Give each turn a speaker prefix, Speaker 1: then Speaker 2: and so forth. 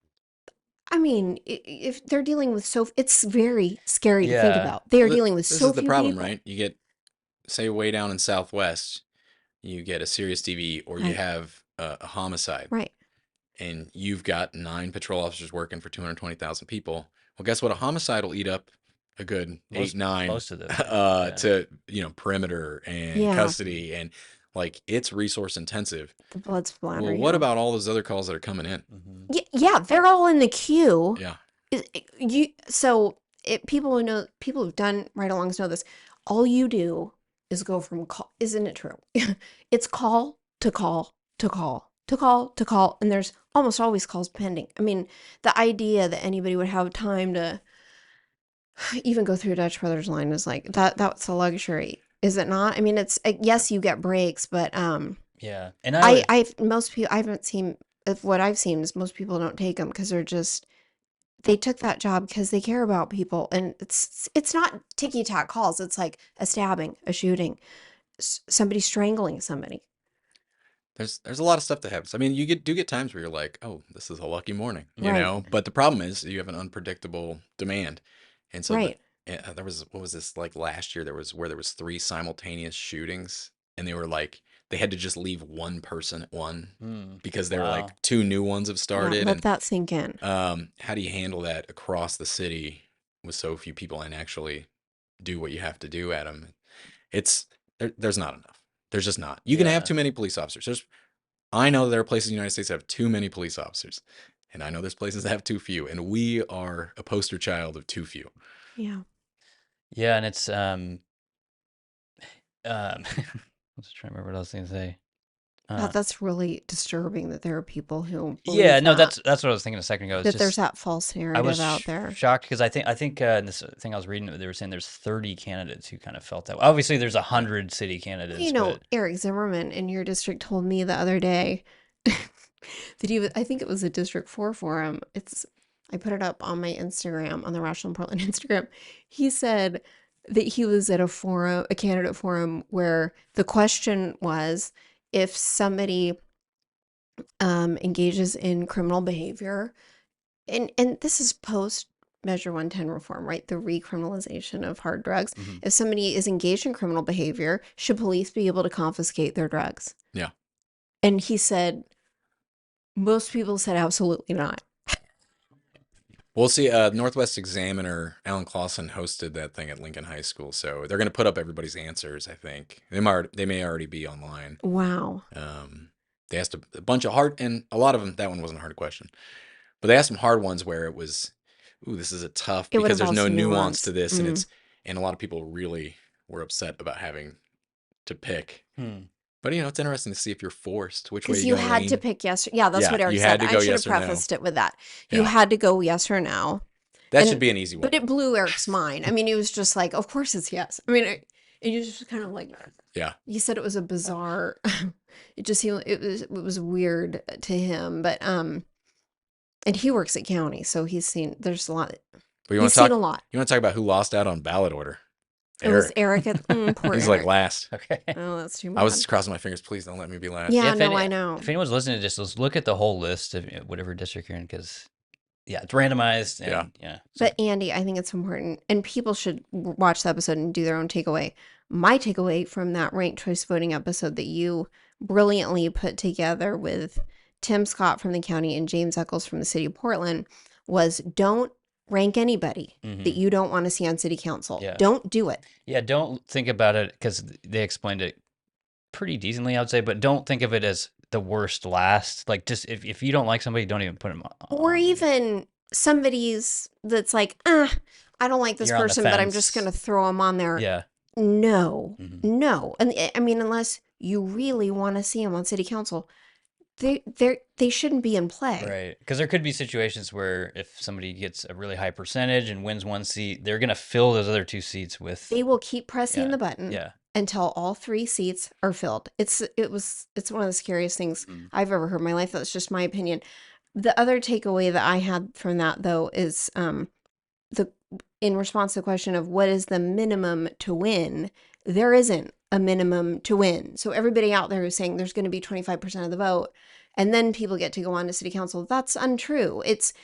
Speaker 1: I mean, i- if they're dealing with so, it's very scary to think
Speaker 2: Yeah.
Speaker 1: about. They are
Speaker 2: Well, th-
Speaker 1: dealing with
Speaker 2: this
Speaker 1: so
Speaker 2: is the
Speaker 1: few
Speaker 2: problem,
Speaker 1: people.
Speaker 2: right? You get say way down in Southwest, you get a serious DV or you
Speaker 1: Right.
Speaker 2: have a, a homicide,
Speaker 1: Right.
Speaker 2: and you've got nine patrol officers working for two hundred twenty thousand people. Well, guess what? A homicide will eat up a good
Speaker 3: Most-
Speaker 2: eight nine
Speaker 3: most of them.
Speaker 2: uh,
Speaker 3: yeah.
Speaker 2: to you know perimeter and
Speaker 1: Yeah.
Speaker 2: custody and like it's resource intensive.
Speaker 1: The blood's flying.
Speaker 2: Well,
Speaker 1: around.
Speaker 2: what about all those other calls that are coming in?
Speaker 3: Mhm.
Speaker 1: Y- yeah, they're all in the queue.
Speaker 2: Yeah.
Speaker 1: Is- i- You so it, people who know people who've done ride alongs know this. All you do is go from call. Isn't it true? it's call to call to call to call to call, and there's almost always calls pending. I mean, the idea that anybody would have time to even go through Dutch Brothers line is like that. That's a luxury, is it not? I mean, it's uh, yes, you get breaks, but um.
Speaker 3: Yeah. And I,
Speaker 1: I,
Speaker 3: would-
Speaker 1: I've most people I haven't seen of what I've seen is most people don't take them because they're just they took that job because they care about people and it's it's not ticky tack calls it's like a stabbing a shooting s- somebody strangling somebody
Speaker 2: There's there's a lot of stuff that happens. I mean, you get do get times where you're like, oh, this is a lucky morning, you
Speaker 1: Right.
Speaker 2: know. But the problem is you have an unpredictable demand, and so the-
Speaker 1: right
Speaker 2: and, uh, there was what was this like last year? There was where there was three simultaneous shootings, and they were like they had to just leave one person at one
Speaker 3: Hmm.
Speaker 2: because there were
Speaker 3: Wow.
Speaker 2: like two new ones have
Speaker 1: Yeah,
Speaker 2: started.
Speaker 1: let
Speaker 2: and
Speaker 1: that sink in
Speaker 2: um, how do you handle that across the city with so few people and actually do what you have to do at them? It's there, there's not enough. There's just not. You can have
Speaker 3: Yeah.
Speaker 2: too many police officers. There's I know there are places in the United States that have too many police officers, and I know there's places that have too few, and we are a poster child of too few.
Speaker 1: yeah
Speaker 3: Yeah, and it's um, um, I was trying to remember what I was going to say. Uh,
Speaker 1: that, that's really disturbing that there are people who believe
Speaker 3: yeah, no,
Speaker 1: that,
Speaker 3: that's that's what I was thinking a second ago.
Speaker 1: that
Speaker 3: It's just,
Speaker 1: there's that false
Speaker 3: I
Speaker 1: narrative
Speaker 3: was
Speaker 1: out
Speaker 3: sh-
Speaker 1: there
Speaker 3: shocked because I think I think uh, in this thing I was reading, they were saying there's 30 candidates who kind of felt that. way. Obviously, there's a hundred city
Speaker 1: Well,
Speaker 3: candidates.
Speaker 1: You know,
Speaker 3: but-
Speaker 1: Eric Zimmerman in your district told me the other day that he was, I think it was a District 4 forum. It's, I put it up on my Instagram, on the Rational Portland Instagram. He said that he was at a forum, a candidate forum, where the question was if somebody um, engages in criminal behavior, and, and this is post Measure 110 reform, right? The recriminalization of hard drugs
Speaker 3: Mhm.
Speaker 1: if somebody is engaged in criminal behavior, should police be able to confiscate their drugs?
Speaker 2: Yeah.
Speaker 1: And he said, most people said absolutely not.
Speaker 2: We'll see. Uh, Northwest Examiner, Alan Clausen hosted that thing at Lincoln High School, so they're going to put up everybody's answers. I think they might they may already be online.
Speaker 1: Wow.
Speaker 2: Um, they asked a, a bunch of hard, and a lot of them. That one wasn't a hard question, but they asked some hard ones where it was, "Ooh, this is a tough
Speaker 1: It would
Speaker 2: because there's no
Speaker 1: involve
Speaker 2: nuance.
Speaker 1: some
Speaker 2: to
Speaker 1: nuance.
Speaker 2: this," and
Speaker 1: Mm.
Speaker 2: it's and a lot of people really were upset about having to pick.
Speaker 3: Hmm.
Speaker 2: But you know, it's interesting to see if you're forced which way
Speaker 1: Because you
Speaker 2: you, gonna
Speaker 1: had to
Speaker 2: lean.
Speaker 1: pick yes. Or, yeah, that's
Speaker 2: Yeah,
Speaker 1: what Eric
Speaker 2: you had
Speaker 1: said.
Speaker 2: to
Speaker 1: I
Speaker 2: go
Speaker 1: should
Speaker 2: yes or no.
Speaker 1: have prefaced it with that. You
Speaker 2: Yeah.
Speaker 1: had to go yes or no.
Speaker 2: That
Speaker 1: and-
Speaker 2: should be an easy one.
Speaker 1: But it blew Eric's mind. I mean, he was just like, of course it's yes. I mean, it, it was just kind of like,
Speaker 2: Yeah.
Speaker 1: He said it was a bizarre, it just seemed, it was, it was weird to him. But, um, and he works at county. So he's seen, there's a lot,
Speaker 2: but you want
Speaker 1: he's
Speaker 2: to talk?
Speaker 1: seen a lot.
Speaker 2: You want to talk about who lost out on ballot order?
Speaker 1: It was
Speaker 2: Eric.
Speaker 1: Eric. At, mm, poor
Speaker 2: He's
Speaker 1: Eric.
Speaker 2: like last.
Speaker 3: Okay.
Speaker 1: oh, that's too much.
Speaker 2: I was just crossing my fingers. Please don't let me be last.
Speaker 1: yeah,
Speaker 3: If
Speaker 1: no,
Speaker 3: any-
Speaker 1: I know.
Speaker 3: If anyone's listening to this, let's look at the whole list of you know, whatever district you're in because, yeah, it's randomized. And,
Speaker 2: Yeah.
Speaker 3: yeah. Yeah. so-
Speaker 1: But Andy, I think it's important, and people should w- watch the episode and do their own takeaway. My takeaway from that ranked choice voting episode that you brilliantly put together with Tim Scott from the county and James Eccles from the city of Portland was don't rank anybody
Speaker 3: Mhm.
Speaker 1: that you don't want to see on city council.
Speaker 3: Yeah.
Speaker 1: Don't do it.
Speaker 3: Yeah, don't think about it because they explained it pretty decently, I would say. But don't think of it as the worst last. Like, just if, if you don't like somebody, don't even put them on.
Speaker 1: or even somebody's that's like, ah, I don't like this
Speaker 3: You're on the
Speaker 1: person, but I'm just
Speaker 3: fence.
Speaker 1: going to throw them on there.
Speaker 3: Yeah.
Speaker 1: No,
Speaker 3: Mhm.
Speaker 1: no. And eh, I- I mean, unless you really want to see them on city council, they they they shouldn't be in play.
Speaker 3: Right. Because there could be situations where if somebody gets a really high percentage and wins one seat, they're going to fill those other two seats with.
Speaker 1: They will keep pressing
Speaker 3: Yeah,
Speaker 1: the button
Speaker 3: yeah.
Speaker 1: until all three seats are filled. It's it was it's one of the scariest things
Speaker 3: Mhm.
Speaker 1: I've ever heard in my life. That's just my opinion. The other takeaway that I had from that though is um the in response to the question of what is the minimum to win, there isn't a minimum to win. So everybody out there who's saying there's going to be 25% of the vote and then people get to go on to city council, that's untrue. It's